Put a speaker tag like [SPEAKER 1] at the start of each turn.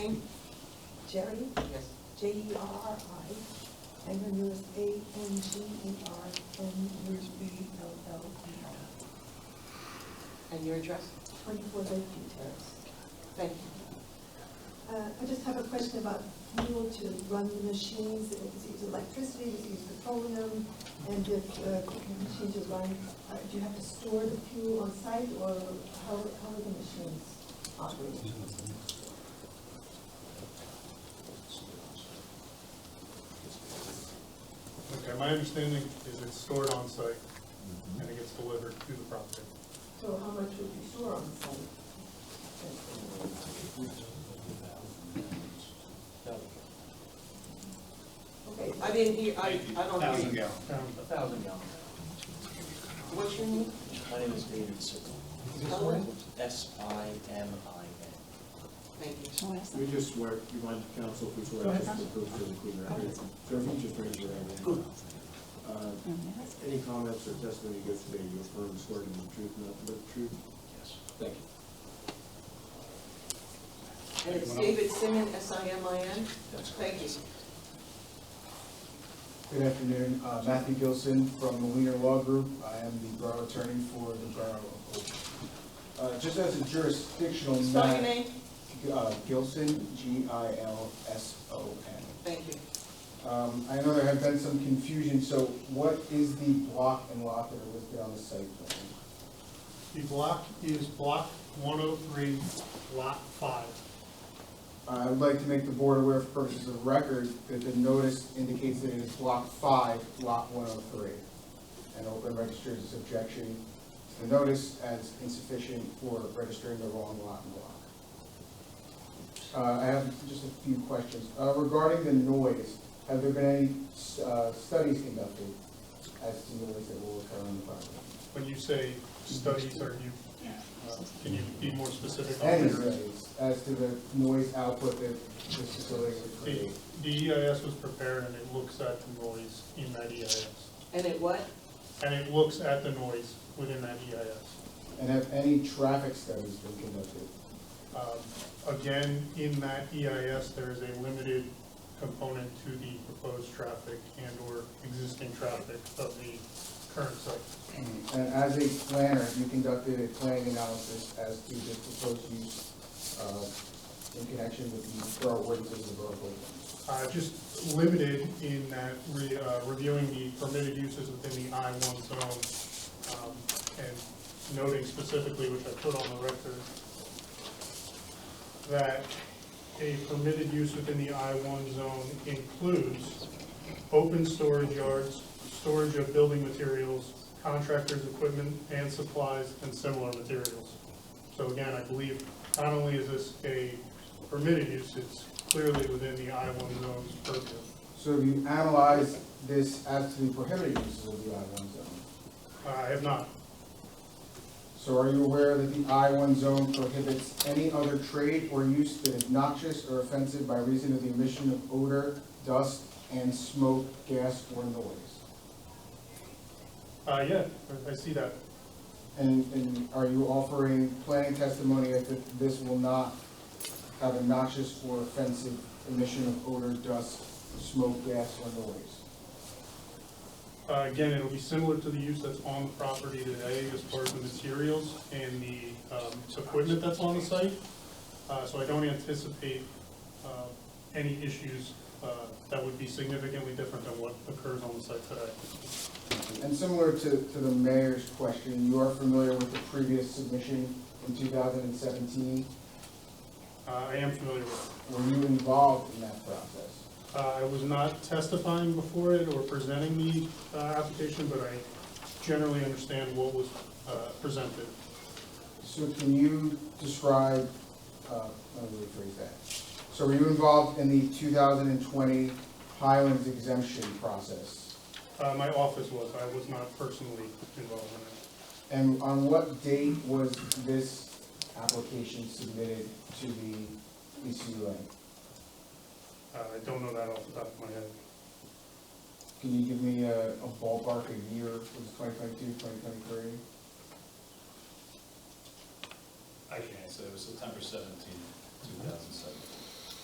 [SPEAKER 1] Jane, Jerry,
[SPEAKER 2] Yes.
[SPEAKER 1] J E R R I, Angren U S A N G E R N U S B L L E R.
[SPEAKER 2] And your address?
[SPEAKER 1] Twenty-four Lakeview Terrace.
[SPEAKER 2] Thank you.
[SPEAKER 3] Uh, I just have a question about fuel to run the machines, if it's used electricity, if it's used petroleum, and if uh, the machines are running, uh, do you have to store the fuel on site, or how how are the machines operated?
[SPEAKER 4] Okay, my understanding is it's stored on site and it gets delivered to the property.
[SPEAKER 3] So how much would you store on site? Okay,
[SPEAKER 2] I didn't hear, I, I don't hear
[SPEAKER 5] Thousand
[SPEAKER 2] you.
[SPEAKER 5] gallon.
[SPEAKER 4] Um,
[SPEAKER 5] A thousand gallon.
[SPEAKER 2] What's your name?
[SPEAKER 5] My name is David Sickle.
[SPEAKER 2] Spell it.
[SPEAKER 5] S I M I N.
[SPEAKER 2] Thank you.
[SPEAKER 6] We just swear, you mind counsel if we swear just to prove to the Cleveland record? Sir, if you just raise your hand. Uh, Any comments or testimony you give today, you affirm swear to the truth, nothing but the truth?
[SPEAKER 5] Yes.
[SPEAKER 6] Thank you.
[SPEAKER 2] And it's David Simon, S I M I N?
[SPEAKER 5] That's
[SPEAKER 2] Thank you.
[SPEAKER 7] Good afternoon, Uh, Matthew Gilson from the Wiener Law Group. I am the borough attorney for the borough of Oakland. Uh, Just as a jurisdictional
[SPEAKER 2] Spell your
[SPEAKER 7] matter.
[SPEAKER 2] name?
[SPEAKER 7] uh, Gilson, G-I-L-S-O-N.
[SPEAKER 2] Thank you.
[SPEAKER 7] Um, I know there had been some confusion, so what is the block and lot that are listed on the site plan?
[SPEAKER 4] The block is block 103, lot 5.
[SPEAKER 7] Uh, I would like to make the board aware for purposes of record that the notice indicates that it is block five, lot one oh three. And Oakland registers its objection to the notice as insufficient for registering the wrong lot and block. Uh, I have just a few questions. Uh, regarding the noise, have there been any, uh, studies conducted as to noise that will occur on the property?
[SPEAKER 4] When you say studies, are you, uh, can you be more specific on
[SPEAKER 7] Any
[SPEAKER 4] your?
[SPEAKER 7] studies as to the noise output that this facility would
[SPEAKER 4] The
[SPEAKER 7] create?
[SPEAKER 4] the EIS was prepared and it looks at the noise in that EIS.
[SPEAKER 2] And it what?
[SPEAKER 4] And it looks at the noise within that E EIS.
[SPEAKER 7] And have any traffic studies been conducted?
[SPEAKER 4] Um, Again, in that EIS, there is a limited component to the proposed traffic and/or existing traffic of the current site.
[SPEAKER 7] And as a planner, have you conducted a planning analysis as to the proposed use uh, in connection with the borough ordinances of the borough of Oakland?
[SPEAKER 4] Uh, Just limited in that re- uh, reviewing the permitted uses within the I-1 zone um, and noting specifically, which I put on the record, that a permitted use within the I-1 zone includes open storage yards, storage of building materials, contractors' equipment and supplies, and similar materials. So again, I believe not only is this a permitted use, it's clearly within the I-1 zone's purview.
[SPEAKER 7] So have you analyzed this as to the prohibited uses of the I-1 zone?
[SPEAKER 4] Uh, I have not.
[SPEAKER 7] So are you aware that the I-1 zone prohibits any other trade or use that is noxious or offensive by reason of the emission of odor, dust, and smoke, gas, or noise?
[SPEAKER 4] Uh, yeah, I see that.
[SPEAKER 7] And, and are you offering planning testimony that th- this will not have a noxious or offensive emission of odor, dust, smoke, gas, or noise?
[SPEAKER 4] Uh, Again, it'll be similar to the use that's on the property today as far as the materials and the um, equipment that's on the site. Uh, So I don't anticipate uh, any issues uh, that would be significantly different than what occurs on the site today.
[SPEAKER 7] And similar to, to the mayor's question, you are familiar with the previous submission in two thousand and seventeen?
[SPEAKER 4] Uh, I am familiar with it.
[SPEAKER 7] Were you involved in that process?
[SPEAKER 4] Uh, I was not testifying before it or presenting the uh, application, but I generally understand what was uh, presented.
[SPEAKER 7] So can you describe, uh, let me rephrase that. So were you involved in the two thousand and twenty Highlands exemption process?
[SPEAKER 4] Uh, My office was, I was not personally involved in it.
[SPEAKER 7] And on what date was this application submitted to the E ECUA?
[SPEAKER 4] Uh, I don't know that off the top of my head.
[SPEAKER 7] Can you give me a a ballpark, a year, was it 2022, 2023?
[SPEAKER 8] I can answer, it was September seventeenth, two thousand seven.